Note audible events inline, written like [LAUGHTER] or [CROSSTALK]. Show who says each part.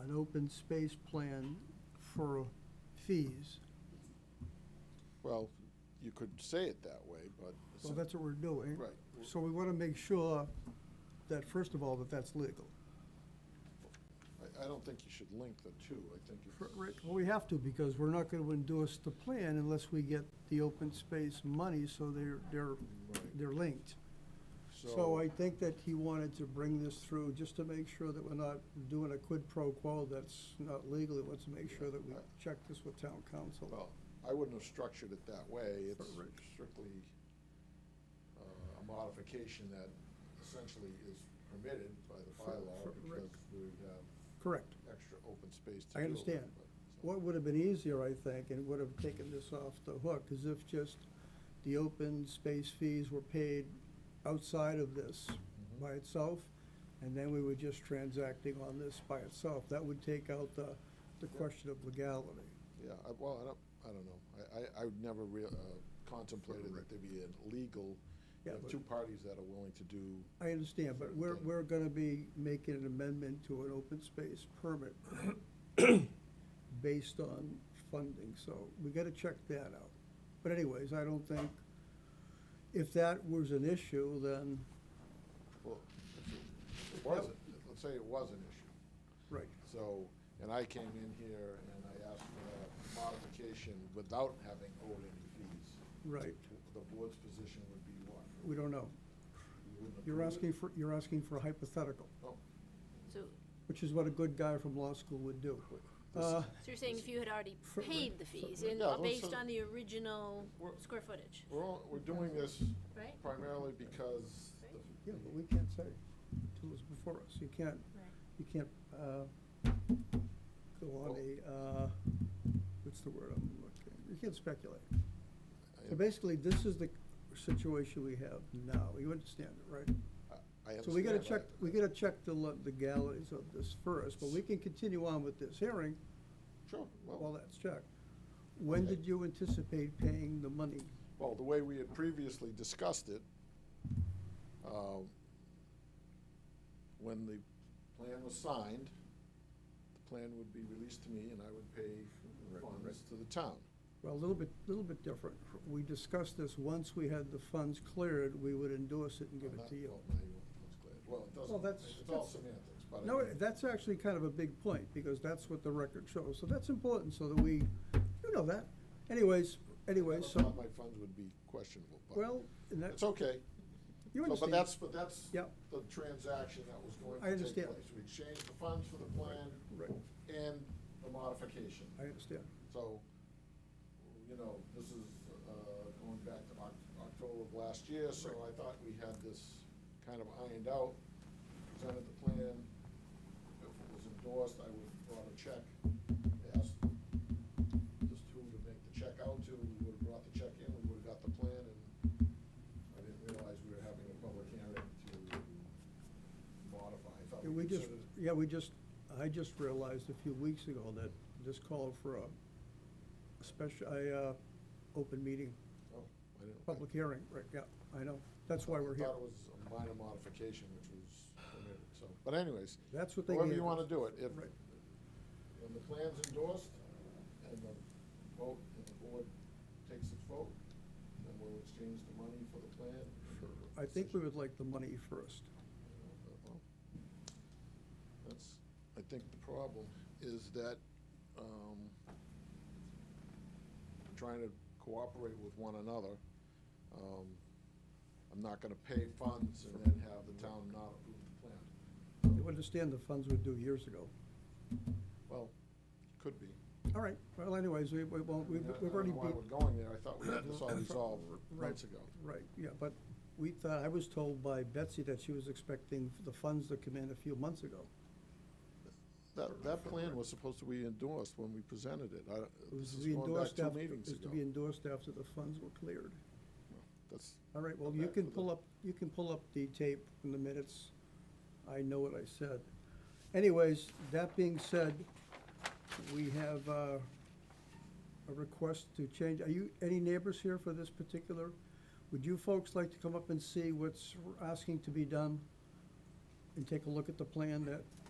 Speaker 1: an open space plan for fees.
Speaker 2: Well, you could say it that way, but.
Speaker 1: Well, that's what we're doing.
Speaker 2: Right.
Speaker 1: So we want to make sure that, first of all, that that's legal.
Speaker 2: I, I don't think you should link the two. I think
Speaker 1: For- right,
Speaker 2: it's,
Speaker 1: Well, we have to, because we're not going to endorse the plan unless we get the open space money, so they're, they're,
Speaker 2: Right.
Speaker 1: they're linked. So
Speaker 2: so,
Speaker 1: I think that he wanted to bring this through just to make sure that we're not doing a quid pro quo that's not legal. He wants to make sure that we check this with town council.
Speaker 2: well, I wouldn't have structured it that way. It's
Speaker 1: Right.
Speaker 2: strictly uh, a modification that essentially is permitted by the
Speaker 1: For- for-
Speaker 2: bylaw
Speaker 1: right.
Speaker 2: because we would have
Speaker 1: Correct.
Speaker 2: extra open space to
Speaker 1: I
Speaker 2: deal with.
Speaker 1: understand.
Speaker 2: but- so-
Speaker 1: What would have been easier, I think, and would have taken this off the hook, is if just the open space fees were paid outside of this
Speaker 2: Mhm.
Speaker 1: by itself, and then we were just transacting on this by itself. That would take out the, the question of legality.
Speaker 2: Yeah, I, well, I don't, I don't know. I, I, I would never rea- uh, contemplated that there'd be a legal, you
Speaker 1: Yeah,
Speaker 2: have
Speaker 1: but-
Speaker 2: two parties that are willing to do,
Speaker 1: I understand, but we're,
Speaker 2: Thing.
Speaker 1: we're gonna be making an amendment to an open space permit based on funding, so we gotta check that out. But anyways, I don't think, if that was an issue, then,
Speaker 2: well, if it wasn't, let's say it was an issue.
Speaker 1: right,
Speaker 2: So, and I came in here and I asked for a modification without having owed any fees.
Speaker 1: right,
Speaker 2: The board's position would be what?
Speaker 1: we don't know.
Speaker 2: You wouldn't
Speaker 1: You're
Speaker 2: approve
Speaker 1: asking
Speaker 2: it?
Speaker 1: for, you're asking for a hypothetical,
Speaker 2: Oh,
Speaker 3: So,
Speaker 1: which is what a good guy from law school would do.
Speaker 2: this-
Speaker 1: Uh,
Speaker 3: so you're saying if you had already
Speaker 1: For-
Speaker 3: paid the fees
Speaker 2: for-
Speaker 3: in,
Speaker 2: Yeah, well,
Speaker 3: based
Speaker 2: so-
Speaker 3: on the original
Speaker 2: We're-
Speaker 3: square footage,
Speaker 2: We're, all- we're doing this
Speaker 3: right?
Speaker 2: primarily because the-
Speaker 1: Yeah, but we can't say till it's before us, you can't, you can't, uh, go on a, uh, what's the word I'm looking, you can't speculate. So basically, this is the situation we have now, you understand it, right?
Speaker 2: I, I understand.
Speaker 1: So we gotta check,
Speaker 2: I-
Speaker 1: we gotta check the le- legalities of this first, but we can continue on with this hearing
Speaker 2: Sure,
Speaker 1: while
Speaker 2: well,
Speaker 1: that's checked. When
Speaker 2: Okay.
Speaker 1: did you anticipate paying the money?
Speaker 2: well, the way we had previously discussed it, um, when the plan was signed, the plan would be released to me and I would pay funds to the town.
Speaker 1: Well, a little bit, little bit different. We discussed this, once we had the funds cleared, we would endorse it and give
Speaker 2: Well,
Speaker 1: it
Speaker 2: that-
Speaker 1: to you.
Speaker 2: Well, now you want- that's clear. Well, it
Speaker 1: Well,
Speaker 2: doesn't,
Speaker 1: that's-
Speaker 2: it's all
Speaker 1: that's-
Speaker 2: semantics, but I
Speaker 1: No,
Speaker 2: mean,
Speaker 1: that's actually kind of a big point, because that's what the record shows, so that's important, so that we, you know that. Anyways, anyways,
Speaker 2: I thought
Speaker 1: so,
Speaker 2: My funds would be questionable, but.
Speaker 1: well, and that's,
Speaker 2: It's okay.
Speaker 1: you
Speaker 2: So,
Speaker 1: understand.
Speaker 2: But that's, but that's
Speaker 1: Yep.
Speaker 2: the transaction that was going
Speaker 1: I
Speaker 2: to take
Speaker 1: understand.
Speaker 2: place. We exchanged the funds for the plan
Speaker 1: Right,
Speaker 2: and the modification.
Speaker 1: I understand.
Speaker 2: So, you know, this is uh, going back to Oc- October of last year, so I thought we had this kind of ironed out, presented the plan. If it was endorsed, I would have brought a check, asked just who to make the check out to, we would have brought the check in, we would have got the plan, and I didn't realize we were having a public hearing to modify. I thought
Speaker 1: Yeah, We just,
Speaker 2: considered-
Speaker 1: yeah, we just, I just realized a few weeks ago that this called for a special, a, uh, open meeting,
Speaker 2: Oh, I didn't.
Speaker 1: public hearing, right, yeah, I know, that's why we're here.
Speaker 2: I thought it was a minor modification, which was permitted, so, but anyways.
Speaker 1: That's what they
Speaker 2: However
Speaker 1: gave
Speaker 2: you wanna
Speaker 1: us.
Speaker 2: do it, if,
Speaker 1: Right.
Speaker 2: when the plan's endorsed, and the vote, and the board takes its vote, then we'll exchange the money for the plan.
Speaker 1: I think we would like the money first.
Speaker 2: That's, I think the problem is that, um, trying to cooperate with one another, um, I'm not gonna pay funds and then have the town not approve the plan.
Speaker 1: You understand the funds were due years ago.
Speaker 2: Well, could be.
Speaker 1: All right, well anyways, we, we won't, we've,
Speaker 2: I mean, I-
Speaker 1: we've already
Speaker 2: I don't know
Speaker 1: beat,
Speaker 2: why we're going there, I thought we had this all resolved
Speaker 1: [COUGHS] Right.
Speaker 2: months ago.
Speaker 1: right, yeah, but we thought, I was told by Betsy that she was expecting the funds to come in a few months ago.
Speaker 2: That, that plan was supposed to be endorsed when we presented it, I,
Speaker 1: It was
Speaker 2: this
Speaker 1: to
Speaker 2: is
Speaker 1: be
Speaker 2: going back
Speaker 1: endorsed
Speaker 2: two
Speaker 1: after-
Speaker 2: meetings
Speaker 1: It was to
Speaker 2: ago.
Speaker 1: be endorsed after the funds were cleared.
Speaker 2: That's,
Speaker 1: All right, well,
Speaker 2: Go
Speaker 1: you
Speaker 2: back
Speaker 1: can
Speaker 2: to the-
Speaker 1: pull up, you can pull up the tape in the minutes. I know what I said. Anyways, that being said, we have uh, a request to change, are you, any neighbors here for this particular? Would you folks like to come up and see what's asking to be done? And take a look at the plan that